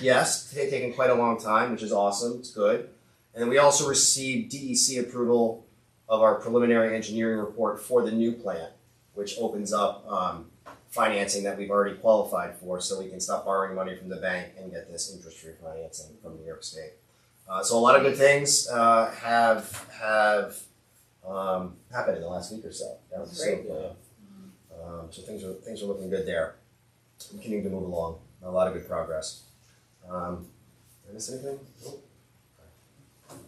yes, it's taken quite a long time, which is awesome. It's good. And we also received DEC approval of our preliminary engineering report for the new plant, which opens up um, financing that we've already qualified for, so we can stop borrowing money from the bank and get this interest-free financing from New York State. Uh, so a lot of good things uh, have have um, happened in the last week or so. That was so, Great. uh, um, so things are things are looking good there. We Continuing to move along, a lot of good progress. Um, did I miss anything? Nope. Okay.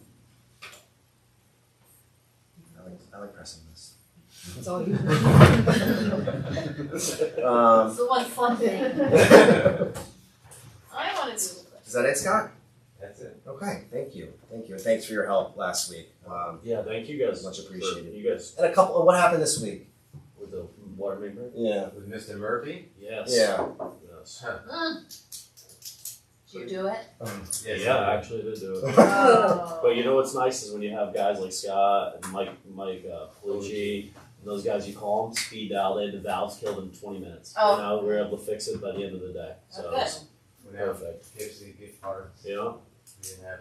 I like I like pressing this. It's all you. Um, It's the one fun thing. is I wanna do a that it, Scott? That's it. Okay, thank you, thank you, and thanks for your help last week. Um, Yeah, thank you guys. Much for- appreciated. You guys and a couple. What happened this week? with the water main break? Yeah. With Mr. Murphy? Yes. Yeah. Yes. Huh. Mm. Did you do it? Yes. Yeah, I actually did do it. Oh. But you know what's nice is when you have guys like Scott and Mike, Mike uh, Pellucci, and those guys you call them speed dial. They had the valves killed in 20 minutes. Oh. You know, we were able to fix it by the end of the day. So Okay. it's Whenever perfect. KFC gift cards, You know, we didn't have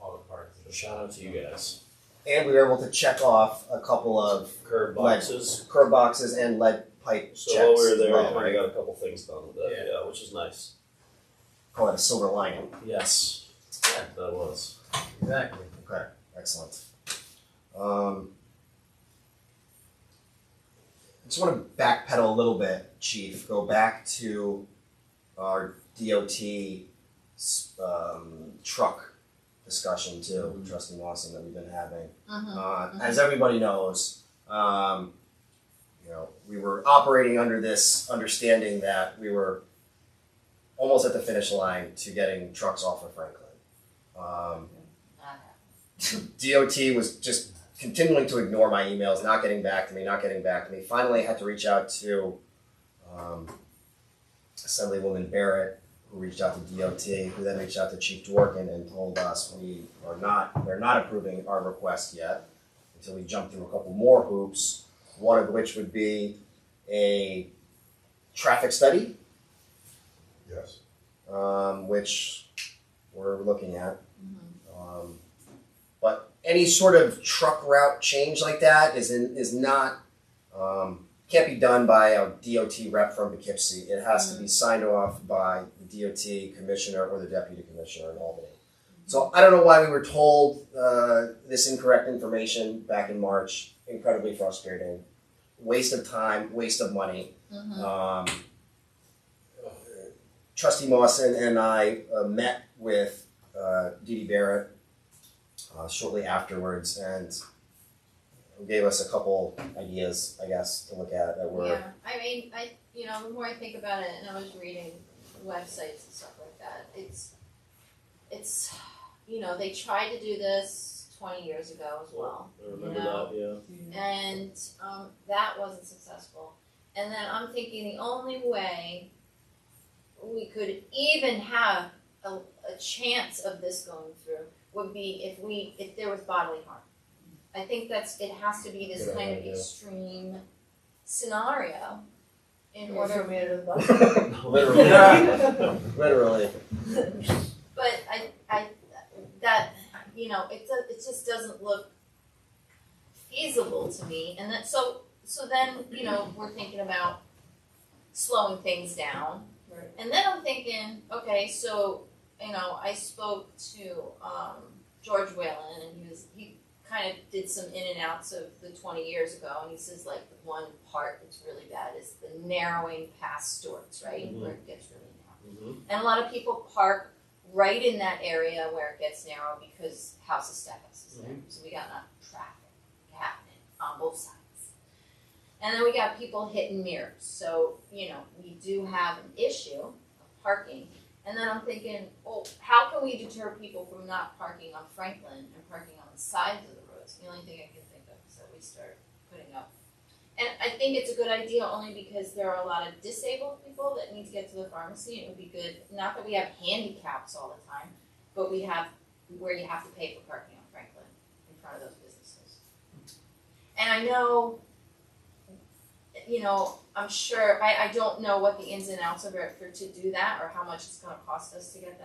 all the parts. so shout out to you guys. And we were able to check off a couple of Curb boxes. curb boxes and lead pipe So checks. while we were there, as we well, kind right? of got a couple things done with that, Yeah. yeah, which is nice. Call it a silver lining. Yes. Yeah, that was. Exactly. Okay, excellent. Um, I just want to backpedal a little bit, Chief. Go back to our DOT s- um, truck discussion too. Mhm. Trusting Lawson that we've been having. Mhm. Uh, As everybody knows, um, you know, we were operating under this understanding that we were almost at the finish line to getting trucks off of Franklin. Um, DOT was just continuing to ignore my emails, not getting back to me, not getting back to me. Finally, I had to reach out to um, Assemblywoman Barrett, who reached out to DOT, who then reached out to Chief Dworkin and told us we are not, they're not approving our request yet until we jump through a couple more hoops, one of which would be a traffic study Yes. um, which we're looking at. Um, but any sort of truck route change like that is in, is not um, can't be done by a DOT rep from Poughkeepsie. It has to be signed off by the DOT commissioner or the deputy commissioner in Albany. So I don't know why we were told uh, this incorrect information back in March. Incredibly frustrating, waste of time, waste of money. Mhm. Um, Trustee Mawson and I uh, met with uh, Dee Dee Barrett uh, shortly afterwards and gave us a couple ideas, I guess, to look at that were Yeah, I mean, I, you know, the more I think about it, and I was reading websites and stuff like that, it's, it's, you know, they tried to do this twenty years ago as well, I remember No. that, yeah. and, um, that wasn't successful. And then I'm thinking the only way we could even have a, a chance of this going through would be if we, if there was bodily harm. I think that's, it has to be this Good kind of idea. extreme scenario in Yeah, order so we had a bunch of- literally, literally. But I, I, that, you know, it, do- it just doesn't look feasible to me, and that, so, so then, you know, we're thinking about slowing things down. Right. And then I'm thinking, okay, so, you know, I spoke to, um, George Whalen, and he was, he kind of did some in and outs of the twenty years ago, and he says like, the one part that's really bad is the narrowing past Stewart's, right, where it gets really narrow. Mm-hmm. And a lot of people park right in that area where it gets narrow because houses stack houses there. So we got enough traffic happening on both sides. And then we got people hitting mirrors. So, you know, we do have an issue of parking. And then I'm thinking, well, how can we deter people from not parking on Franklin and parking on the sides of the roads? The only thing I can think of is that we start putting up. And I think it's a good idea only because there are a lot of disabled people that need to get to the pharmacy. It would be good, not that we have handicaps all the time, but we have where you have to pay for parking on Franklin in front of those businesses. And I know, you know, I'm sure, I, I don't know what the ins and outs of it for to do that or how much it's gonna cost us to get that.